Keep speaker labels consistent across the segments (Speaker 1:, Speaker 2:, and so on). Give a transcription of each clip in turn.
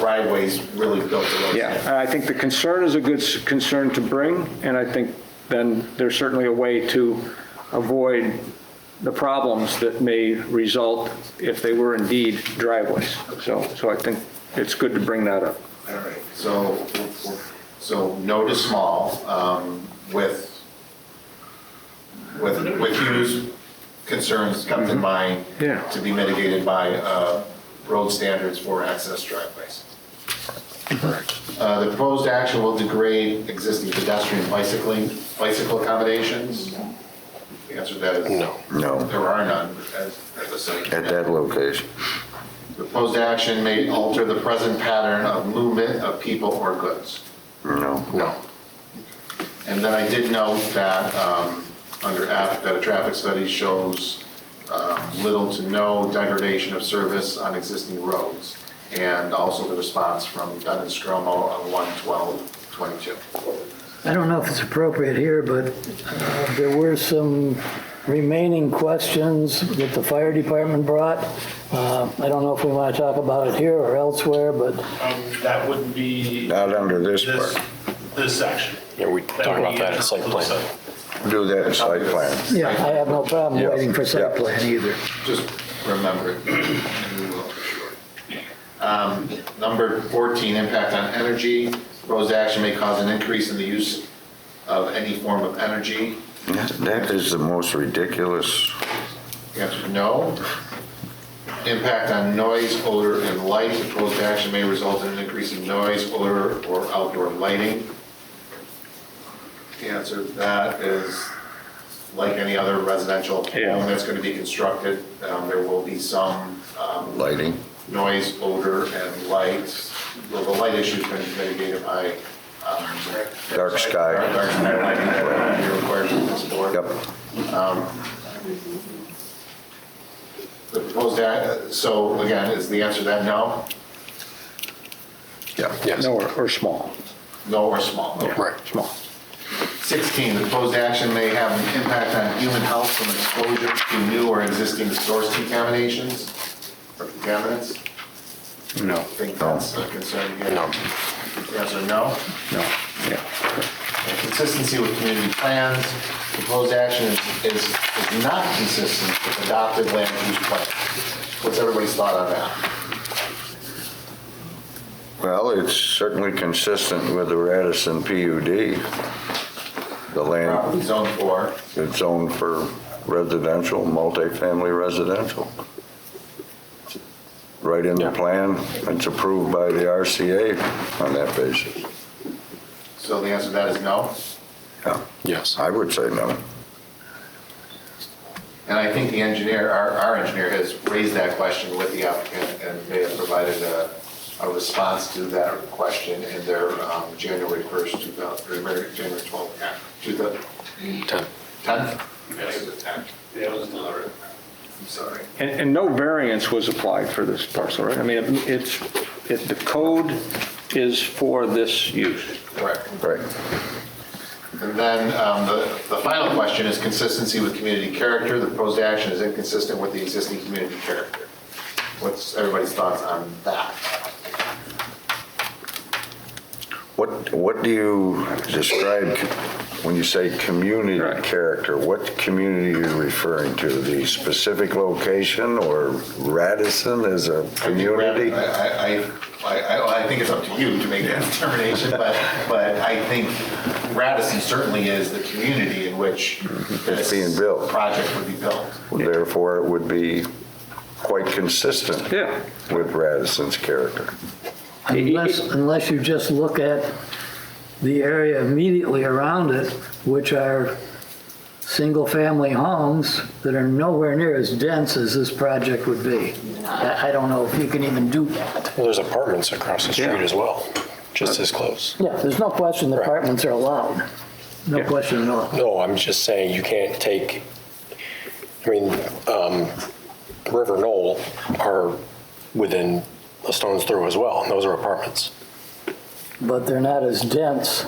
Speaker 1: right ways really built the road.
Speaker 2: Yeah.
Speaker 3: And I think the concern is a good s- concern to bring, and I think then there's certainly a way to avoid the problems that may result if they were indeed driveways. So, so I think it's good to bring that up.
Speaker 1: All right, so, so no to small, um, with, with, with Hugh's concerns kept in mind.
Speaker 3: Yeah.
Speaker 1: To be mitigated by, uh, road standards for access driveways. Uh, the proposed action will degrade existing pedestrian bicycling, bicycle accommodations? The answer to that is.
Speaker 4: No.
Speaker 2: No.
Speaker 1: There are none as, as a city.
Speaker 2: at that location.
Speaker 1: Proposed action may alter the present pattern of movement of people or goods.
Speaker 2: No.
Speaker 4: No.
Speaker 1: And then I did note that, um, under F, that a traffic study shows um, little to no degradation of service on existing roads, and also the response from Dunn and Stromo on 11222.
Speaker 5: I don't know if it's appropriate here, but uh, there were some remaining questions that the fire department brought. Uh, I don't know if we want to talk about it here or elsewhere, but
Speaker 6: Um, That wouldn't be
Speaker 2: Not under this
Speaker 6: this,
Speaker 2: part.
Speaker 6: this section.
Speaker 4: Yeah, we talk
Speaker 6: would
Speaker 4: about
Speaker 6: be
Speaker 4: that in site plan.
Speaker 2: Do that in site plan.
Speaker 5: yeah, I have no problem
Speaker 2: Yeah,
Speaker 5: waiting for site
Speaker 2: yeah.
Speaker 5: plan either.
Speaker 1: Just remember it, and we will, for sure. Um, Number 14, impact on energy. Proposed action may cause an increase in the use of any form of energy.
Speaker 2: That is the most ridiculous.
Speaker 1: The answer is no. Impact on noise, odor, and light. Proposed action may result in an increase in noise, odor, or outdoor lighting. The answer to that is, like any other residential
Speaker 3: Yeah.
Speaker 1: home that's going to be constructed, um, there will be some um,
Speaker 2: Lighting.
Speaker 1: noise, odor, and light. Well, the light issue's been mitigated by. um,
Speaker 2: Dark sky.
Speaker 1: Dark sky lighting that you're required to explore.
Speaker 2: Yep.
Speaker 1: Um, The proposed, act- so again, is the answer that no?
Speaker 2: Yeah.
Speaker 4: Yes.
Speaker 3: No, or, or small,
Speaker 1: No or small? Okay.
Speaker 4: Right.
Speaker 3: small.
Speaker 1: 16, the proposed action may have an impact on human health from exposure to new or existing source contaminations or contaminants.
Speaker 3: No.
Speaker 1: I think that's a concern here.
Speaker 4: No.
Speaker 1: The Answer no.
Speaker 3: No, yeah.
Speaker 1: Consistency with community plans. Proposed action is- is is not consistent with adopted land use plan. What's everybody's thought on that?
Speaker 2: Well, it's certainly consistent with the Radisson PUD. The land,
Speaker 1: Property zone four.
Speaker 2: it's zoned for residential, multifamily residential. Right in the plan, it's approved by the RCA on that basis.
Speaker 1: So the answer to that is no.
Speaker 2: Yeah,
Speaker 4: Yes.
Speaker 2: I would say no.
Speaker 1: And I think the engineer, our, our engineer has raised that question with the applicant and they have provided a, a response to that question in their um, January 1st, 2000, or January 12th, act- 2010?
Speaker 4: Ten.
Speaker 1: Yes. Yeah, it was delivered. I'm sorry.
Speaker 3: And, and no variance was applied for this parcel, right? I mean, it- it's, it, the code is for this use.
Speaker 1: Correct.
Speaker 2: Right.
Speaker 1: And then um, the, the final question is consistency with community character. The proposed action is inconsistent with the existing community character. What's everybody's thoughts on that?
Speaker 2: What, what do you describe c- when you say community
Speaker 3: Right.
Speaker 2: character? What community are you referring to? The specific location or Radisson as a community?
Speaker 1: I, I- I, I, I think it's up to you to make that determination, but, but I think Radisson certainly is the community in which
Speaker 2: It's
Speaker 1: this
Speaker 2: Mm-hmm. being built.
Speaker 1: project would be built.
Speaker 2: Therefore, it would be quite consistent
Speaker 3: Yeah.
Speaker 2: with Radisson's character.
Speaker 5: Unless, unless you just look at the area immediately around it, which are single-family homes that are nowhere near as dense as this project would be. I I don't know if you can even do that.
Speaker 4: Well, there's apartments across the street
Speaker 3: Yeah.
Speaker 4: as well, just as close.
Speaker 5: Yeah, there's no question the apartments are allowed. No question at all.
Speaker 4: No, I'm just saying you can't take, I mean, um, River Knoll are within a stone's throw as well, and those are apartments.
Speaker 5: But they're not as dense.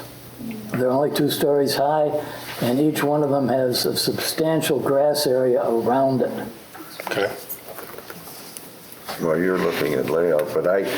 Speaker 5: They're only two stories high, and each one of them has a substantial grass area around it.
Speaker 4: Okay.
Speaker 2: Well, you're looking at layout, but I,